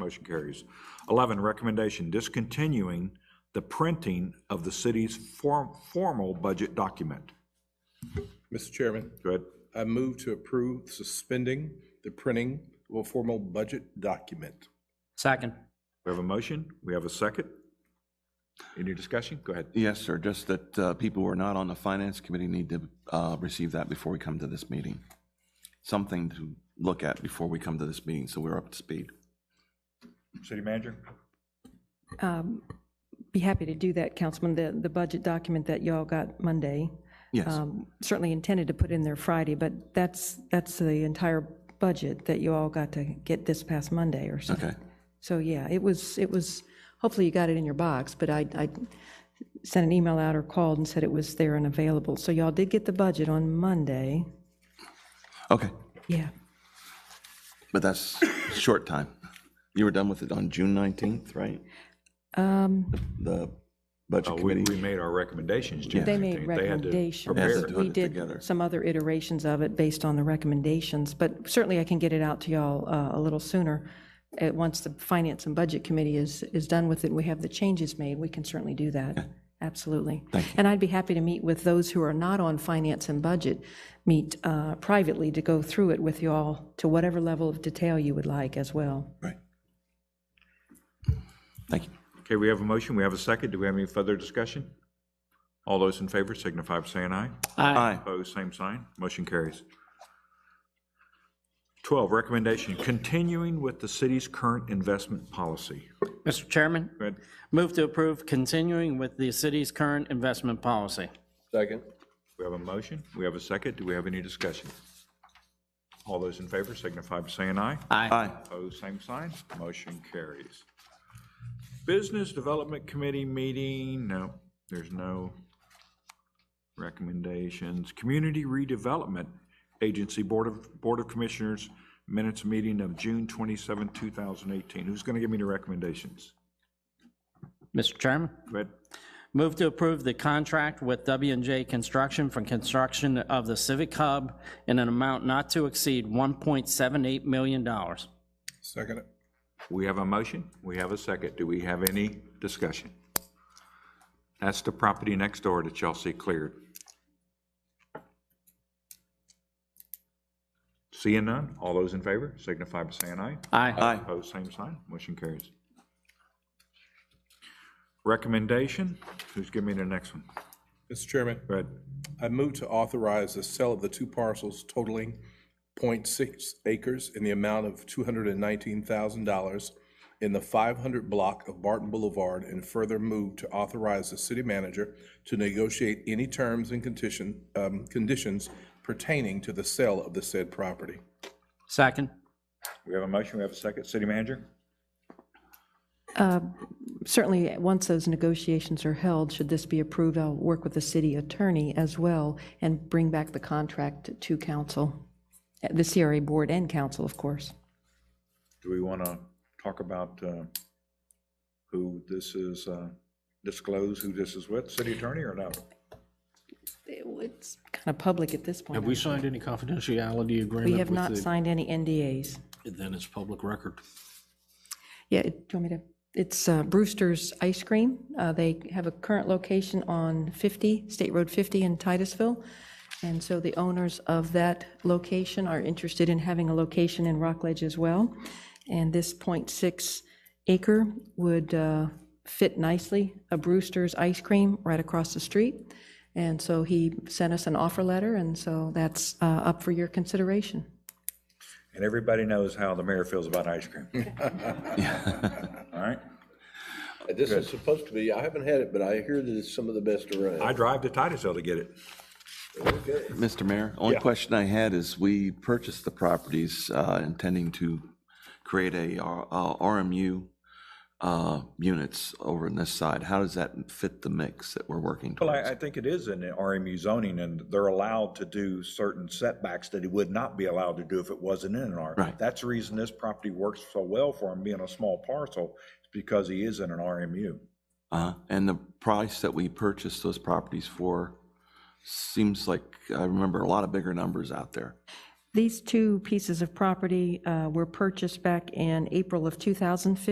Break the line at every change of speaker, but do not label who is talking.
Motion carries. 11, recommendation discontinuing the printing of the city's form- formal budget document.
Mr. Chairman,
Go ahead.
I move to approve suspending the printing of a formal budget document.
Second.
We have a motion, we have a second. Any discussion? Go ahead.
Yes, sir, just that uh, people who are not on the finance committee need to uh, receive that before we come to this meeting. Something to look at before we come to this meeting, so we're up to speed.
City manager?
Be happy to do that, Councilman. The, the budget document that y'all got Monday,
Yes,
um, certainly intended to put in there Friday, but that's, that's the entire budget that you all got to get this past Monday or something.
okay.
So, yeah, it was, it was, hopefully you got it in your box, but I, I sent an email out or called and said it was there and available. So y'all did get the budget on Monday.
Okay,
Yeah,
but that's short time. You were done with it on June 19th, right? The budget
Oh, We, we
committee?
made our recommendations. June
they
19th.
made
They had to
recommendations.
prepare.
Yes, they do.
We
it together.
did some other iterations of it based on the recommendations, but certainly I can get it out to y'all uh, a little sooner. Uh, Once the Finance and Budget Committee is, is done with it, and we have the changes made, we can certainly do that. Absolutely. And I'd be happy to meet with those who are not on Finance and Budget, meet uh, privately to go through it with y'all to whatever level of detail you would like as well.
Right. Thank you.
Okay, we have a motion, we have a second. Do we have any further discussion? All those in favor signify by saying aye.
Aye.
Opposed, same sign. Motion carries. 12, recommendation, continuing with the city's current investment policy.
Mr. Chairman,
Go ahead.
move to approve continuing with the city's current investment policy.
Second.
We have a motion, we have a second. Do we have any discussion? All those in favor signify by saying aye.
Aye.
Aye.
Opposed, same sign. Motion carries. Business Development Committee meeting, no, there's no recommendations. Community Redevelopment Agency Board of, Board of Commissioners minutes meeting of June 27, 2018. Who's going to give me the recommendations?
Mr. Chairman,
Go ahead.
move to approve the contract with w and J Construction for construction of the Civic Hub in an amount not to exceed $1.78 million.
Second it.
We have a motion, we have a second. Do we have any discussion? That's the property next door that y'all see cleared. Seeing none, all those in favor signify by saying aye.
Aye.
Aye.
Opposed, same sign, motion carries. Recommendation, who's giving me the next one?
Mr. Chairman,
Go ahead.
I move to authorize the sale of the two parcels totaling .6 acres in the amount of $219,000 in the 500 block of Barton Boulevard, and further move to authorize the city manager to negotiate any terms and condition, um, conditions pertaining to the sale of the said property.
Second.
We have a motion, we have a second. City manager?
Certainly, once those negotiations are held, should this be approved, I'll work with the city attorney as well and bring back the contract to council, the CRA board and council, of course.
Do we want to talk about uh, who this is, uh, disclose who this is with, city attorney or no?
It's kind of public at this
Have we
point.
signed any confidentiality agreement?
We have
with
not
the-
signed any NDAs.
Then it's public record.
Yeah, it- do you want me to, it's uh, Brewster's Ice Cream. Uh, They have a current location on 50, State Road 50 in Titusville. And so the owners of that location are interested in having a location in Rockledge as well. And this .6 acre would uh, fit nicely, a Brewster's Ice Cream right across the street. And so he sent us an offer letter, and so that's uh, up for your consideration.
And everybody knows how the mayor feels about ice cream. All right?
This is supposed to be, I haven't had it, but I hear that it's some of the best around.
I drive to Titusville to get it.
Mr. Mayor, only question I had is, we purchased the properties uh, intending to create a R- uh, RMU uh, units over on this side. How does that fit the mix that we're working
Well, I,
towards?
I think it is in the RMU zoning, and they're allowed to do certain setbacks that it would not be allowed to do if it wasn't in an R.
Right.
That's the reason this property works so well for him, being a small parcel, is because he is in an RMU.
Uh, And the price that we purchased those properties for seems like, I remember a lot of bigger numbers out there.
These two pieces of property uh, were purchased back in April of 2015.